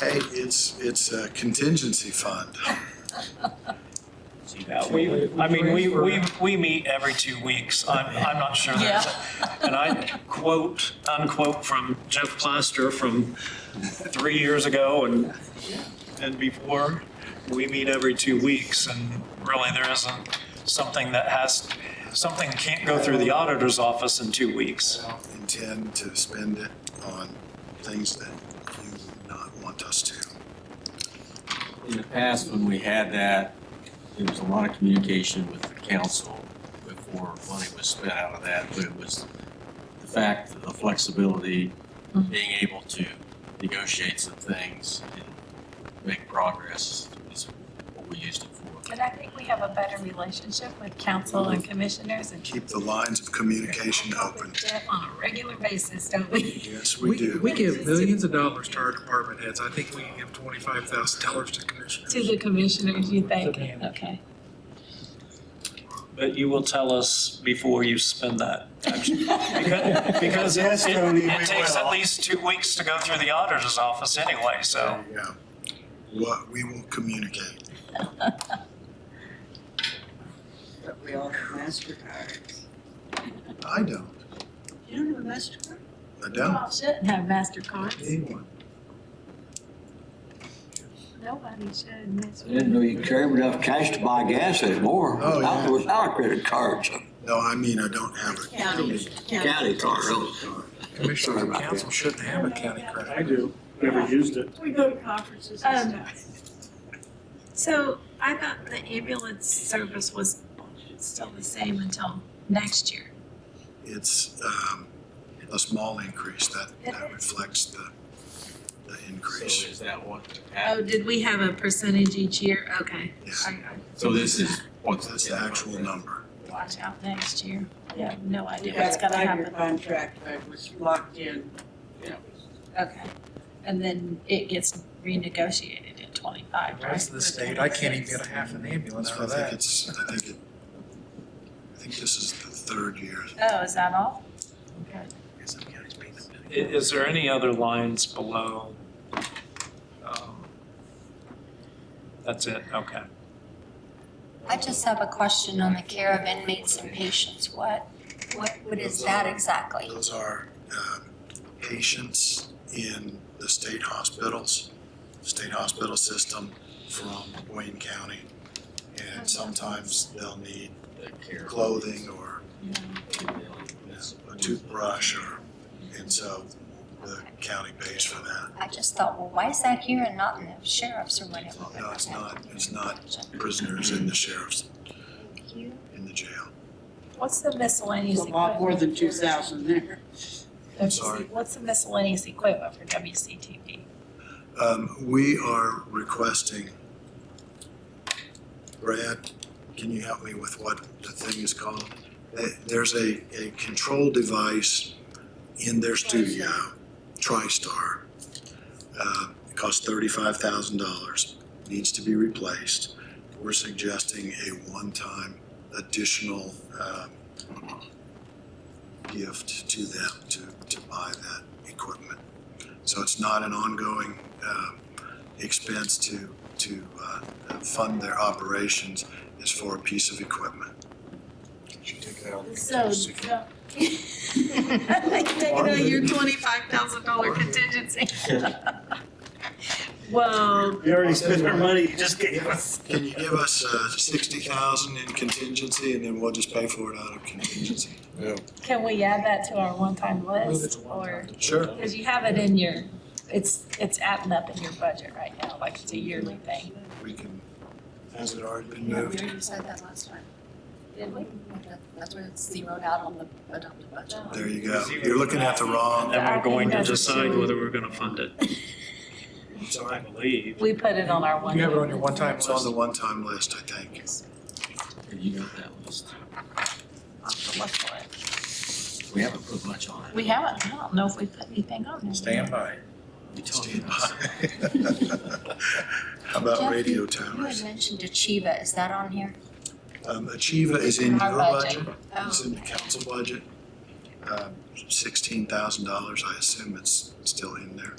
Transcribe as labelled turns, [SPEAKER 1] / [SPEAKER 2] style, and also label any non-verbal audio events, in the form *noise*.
[SPEAKER 1] Hey, it's, it's a contingency fund.
[SPEAKER 2] Yeah, we, I mean, we, we, we meet every two weeks. I'm, I'm not sure. there's a- And I quote, unquote, from Jeff Plaster from three years ago and, and before. We meet every two weeks and really there isn't something that has, something can't go through the auditor's office in two weeks.
[SPEAKER 1] Intend to spend it on things that you would not want us to.
[SPEAKER 3] In the past, when we had that, there was a lot of communication with the council before money was spent out of that, but it was the fact of the flexibility, being able to negotiate some things and make progress is what we used it for.
[SPEAKER 4] *laughs* But I think we have a better relationship with council and commissioners and
[SPEAKER 1] Keep the lines of communication open.
[SPEAKER 4] with Jeff on a regular basis, don't we? *laughs*
[SPEAKER 1] Yes, we do.
[SPEAKER 5] We give millions of dollars to our department heads. I think we can give twenty-five thousand dollars to commissioners.
[SPEAKER 4] To the commissioners, you think? Okay.
[SPEAKER 2] But you will tell us before you spend that.
[SPEAKER 4] *laughs*
[SPEAKER 2] actually. Because
[SPEAKER 6] *laughs*
[SPEAKER 2] because it
[SPEAKER 6] Yes, Tony, we
[SPEAKER 2] it takes at
[SPEAKER 6] will.
[SPEAKER 2] least two weeks to go through the auditor's office anyway, so.
[SPEAKER 1] Yeah. What, we will communicate.
[SPEAKER 7] But we all have MasterCards.
[SPEAKER 1] I don't.
[SPEAKER 7] You don't have a MasterCard?
[SPEAKER 1] I don't.
[SPEAKER 4] Shouldn't have MasterCard.
[SPEAKER 1] Anyone.
[SPEAKER 4] Nobody should. That's-
[SPEAKER 6] I Didn't know you carried enough cash to buy gas anymore
[SPEAKER 1] Oh,
[SPEAKER 6] without,
[SPEAKER 1] yeah.
[SPEAKER 6] without a credit card. so
[SPEAKER 1] No, I mean, I don't have it.
[SPEAKER 7] County.
[SPEAKER 6] County card, really.
[SPEAKER 5] Commissioners and council shouldn't have a county credit.
[SPEAKER 8] I do, never used it.
[SPEAKER 7] We go to conferences and stuff.
[SPEAKER 4] Um, So I thought the ambulance service was still the same until next year.
[SPEAKER 1] It's um, a small increase. That, that reflects the, the
[SPEAKER 3] So
[SPEAKER 1] increase.
[SPEAKER 3] is that what
[SPEAKER 4] Oh,
[SPEAKER 3] happened?
[SPEAKER 4] did we have a percentage each year? Okay.
[SPEAKER 1] Yeah,
[SPEAKER 3] So this is what's.
[SPEAKER 1] that's the actual number.
[SPEAKER 4] Watch out next year. We have no idea
[SPEAKER 7] Yeah,
[SPEAKER 4] what's gonna
[SPEAKER 7] five-year
[SPEAKER 4] happen.
[SPEAKER 7] contract, I was locked in.
[SPEAKER 4] Okay. And then it gets renegotiated in twenty-five, right?
[SPEAKER 5] Rest of the state, I can't even get a half an ambulance
[SPEAKER 1] So
[SPEAKER 5] for
[SPEAKER 1] I think
[SPEAKER 5] that.
[SPEAKER 1] it's, I think it, I think this is the third year.
[SPEAKER 4] Oh, is that all?
[SPEAKER 2] I- Is there any other lines below? um, That's it, okay.
[SPEAKER 9] I just have a question on the care of inmates and patients. What, what, what is that exactly?
[SPEAKER 1] Those are um, patients in the state hospitals, state hospital system from Wayne County. And sometimes they'll need clothing or you know, a toothbrush or, and so the county pays for that.
[SPEAKER 9] I just thought, well, why is that here and not in the sheriff's or whatever?
[SPEAKER 1] No, it's not, it's not prisoners in the sheriff's,
[SPEAKER 9] Thank you.
[SPEAKER 1] in the jail.
[SPEAKER 4] What's the miscellaneous?
[SPEAKER 7] There's a lot more than two
[SPEAKER 4] equipment for-
[SPEAKER 7] thousand there.
[SPEAKER 1] I'm sorry.
[SPEAKER 4] What's the miscellaneous equipment for WCTV?
[SPEAKER 1] Um, we are requesting, Brad, can you help me with what the thing is called? Eh, There's a, a control device in their studio, TriStar. Uh, it costs thirty-five thousand dollars, needs to be replaced. We're suggesting a one-time additional, um, gift to them to, to buy that equipment. So it's not an ongoing um, expense to, to uh, fund their operations, it's for a piece of equipment.
[SPEAKER 4] So. so- *laughs* I Take it out your twenty-five thousand dollar *laughs* contingency. Well,
[SPEAKER 8] We already spent our money, you just gave us.
[SPEAKER 1] Can you give us uh, sixty thousand in contingency, and then we'll just pay for it out of contingency?
[SPEAKER 4] can we add that to our one-time
[SPEAKER 5] Move it
[SPEAKER 4] list
[SPEAKER 5] to one
[SPEAKER 4] or?
[SPEAKER 5] time.
[SPEAKER 1] Sure.
[SPEAKER 4] Because you have it in your, it's, it's adding up in your budget right now, like it's a yearly thing.
[SPEAKER 1] We can, has it already been
[SPEAKER 9] We
[SPEAKER 1] moved?
[SPEAKER 9] already said that last time. Did we? That's where it's zeroed out on the adopted budget.
[SPEAKER 1] There you go. You're looking at the
[SPEAKER 2] And
[SPEAKER 1] wrong,
[SPEAKER 2] then we're going to decide whether we're going to fund it. I believe.
[SPEAKER 4] We put it on our one.
[SPEAKER 5] You have it on your one-time
[SPEAKER 1] it's on
[SPEAKER 5] list.
[SPEAKER 1] the one-time list, I think.
[SPEAKER 3] You got that list. We haven't put much on it.
[SPEAKER 4] We haven't, I don't know if we put anything on there.
[SPEAKER 5] Stand by.
[SPEAKER 3] We talked
[SPEAKER 1] Stand
[SPEAKER 3] about it.
[SPEAKER 1] by. *laughs* How about
[SPEAKER 9] Jeff,
[SPEAKER 1] radio
[SPEAKER 9] You had
[SPEAKER 1] towers?
[SPEAKER 9] mentioned Achieva. Is that on here?
[SPEAKER 1] Um, Achieva is in
[SPEAKER 9] Our
[SPEAKER 1] your budget.
[SPEAKER 9] budget. Oh.
[SPEAKER 1] It's in the Um, council budget, sixteen thousand dollars, I assume it's still in there.